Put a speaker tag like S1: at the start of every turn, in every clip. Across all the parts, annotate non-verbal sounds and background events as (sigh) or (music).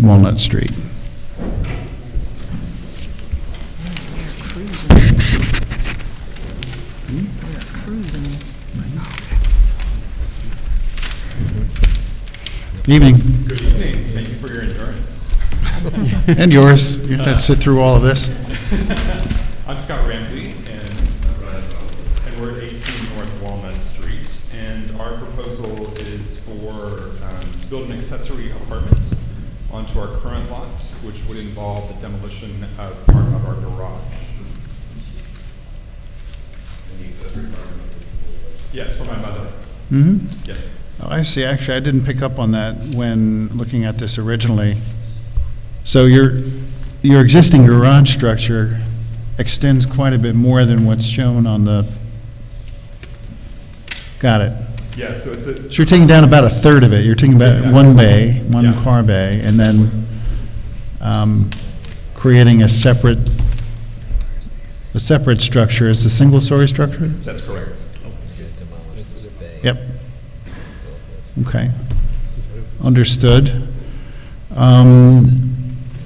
S1: Walnut Street. Evening.
S2: Good evening. Thank you for your endurance.
S1: (laughs)
S2: Uh,
S1: And yours. You've had to sit through all of this.
S2: (laughs) I'm Scott Ramsey, and uh, and we're at 18 North Walnut Street. And our proposal is for, um, to build an accessory apartment onto our current lot, which would involve the demolition of part of our garage. Yes, for my mother.
S1: Mm-hmm.
S2: Yes.
S1: I see, actually, I didn't pick up on that when looking at this originally. So your, your existing garage structure extends quite a bit more than what's shown on the, got it.
S2: Yeah, so it's a,
S1: So you're taking down about a third of it, you're taking about one bay, one
S2: Yeah.
S1: car bay, and then um, creating a separate, a separate structure, is a single-story structure?
S2: that's correct.
S1: Yep. Okay. Understood. Um,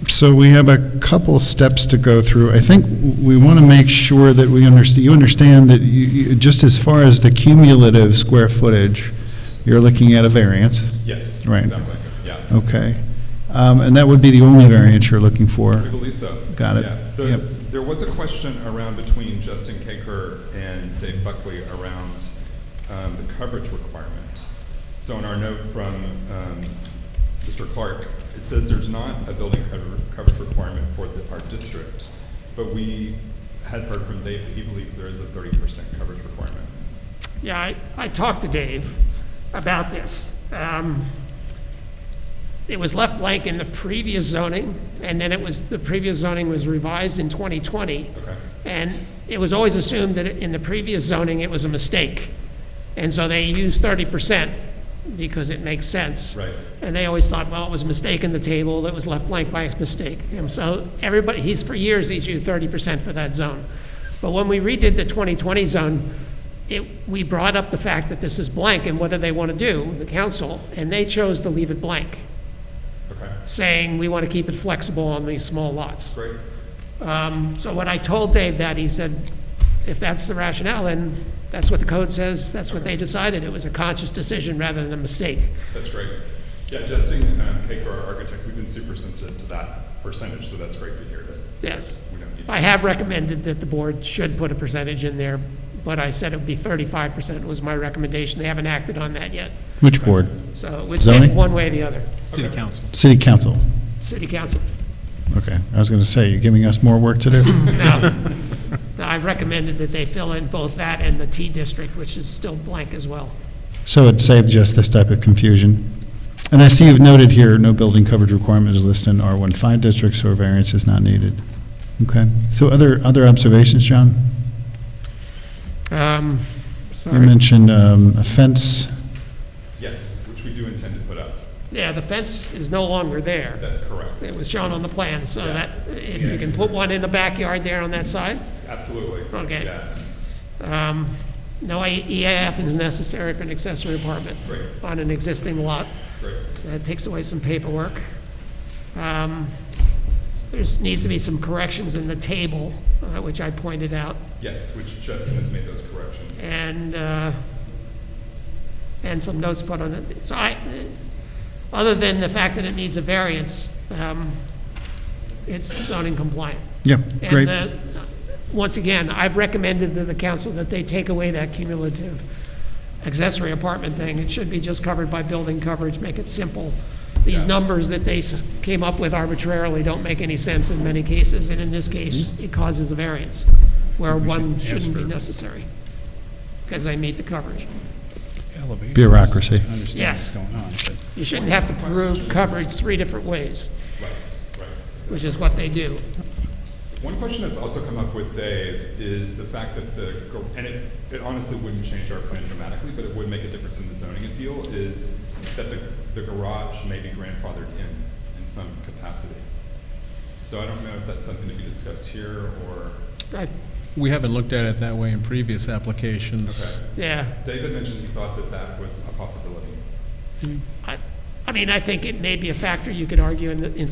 S1: So we have a couple steps to go through. I think we want to make sure that we understand, you understand that you- you, just as far as the cumulative square footage, you're looking at a variance,
S2: Yes.
S1: Right.
S2: Exactly, yeah.
S1: okay? Um, And that would be the only variance you're looking for.
S2: I believe so.
S1: Got it.
S2: Yeah. The-
S1: Yep.
S2: There was a question around between Justin Kaker and Dave Buckley around um, the coverage requirement. So in our note from um, Mr. Clark, it says there's not a building cover- coverage requirement for the- our district, but we had heard from Dave, that he believes there is a 30% coverage requirement.
S3: Yeah, I, I talked to Dave about this. Um, It was left blank in the previous zoning, and then it was, the previous zoning was revised in 2020.
S2: Okay.
S3: And it was always assumed that in the previous zoning, it was a mistake. And so they used 30% because it makes sense.
S2: Right.
S3: And they always thought, well, it was a mistake in the table, that was left blank by mistake. And so everybody, he's, for years, he's used 30% for that zone. But when we redid the 2020 zone, it, we brought up the fact that this is blank, and what do they want to do, the council? And they chose to leave it blank,
S2: Okay,
S3: saying, we want to keep it flexible on these small lots.
S2: great.
S3: Um, So when I told Dave that, he said, if that's the rationale, then that's what the code says, that's what they decided. It was a conscious decision rather than a mistake.
S2: That's great. Yeah, Justin um, Kaker, our architect, we've been super sensitive to that percentage, so that's great to hear that
S3: Yes.
S2: we don't need.
S3: I have recommended that the board should put a percentage in there, but I said it would be thirty-five percent was my recommendation. They haven't acted on that yet.
S1: Which board?
S3: So it would
S1: Zoning?
S3: take one way or the other.
S4: City Council.
S1: City Council.
S3: City council.
S1: Okay, I was going to say, you're giving us more work to do?
S3: Now, now I've recommended that they fill in both that and the T district, which is still blank as well.
S1: So it saved just this type of confusion. And I see you've noted here, no building coverage requirement is listed in R15 districts, so a variance is not needed. Okay, so other, other observations, John?
S3: Um,
S1: You
S3: sorry.
S1: mentioned um, a fence,
S2: Yes, which we do intend to put up.
S3: Yeah, the fence is no longer there.
S2: That's correct.
S3: It was shown on the plan, so that, if you can put one in the backyard there on that side,
S2: Absolutely.
S3: Okay.
S2: Yeah,
S3: Um, No EAF is necessary for an accessory apartment
S2: Right.
S3: on an existing lot,
S2: great.
S3: so that takes away some paperwork. Um, There's, needs to be some corrections in the table, uh, which I pointed out,
S2: Yes, which Justin has made those corrections.
S3: and, uh, and some notes put on it. So I, other than the fact that it needs a variance, um, it's zoning compliant.
S1: yeah,
S3: And
S1: great,
S3: the, once again, I've recommended to the council that they take away that cumulative accessory apartment thing. It should be just covered by building coverage, make it simple. These numbers that they s- came up with arbitrarily don't make any sense in many cases, and in this case,
S2: Hmm?
S3: it causes a variance where one shouldn't be necessary because they meet the coverage.
S1: bureaucracy.
S3: Yes. You shouldn't have to prove coverage three different ways,
S2: Right, right.
S3: which is what they do.
S2: One question that's also come up with Dave is the fact that the, gar- and it, it honestly wouldn't change our plan dramatically, but it would make a difference in the zoning appeal, is that the, the garage may be grandfathered in, in some capacity. So I don't know if that's something to be discussed here or,
S3: I-
S4: We haven't looked at it that way in previous applications.
S2: okay.
S3: Yeah.
S2: David mentioned he thought that that was a possibility.
S3: I, I mean, I think it may be a factor you could argue in the, in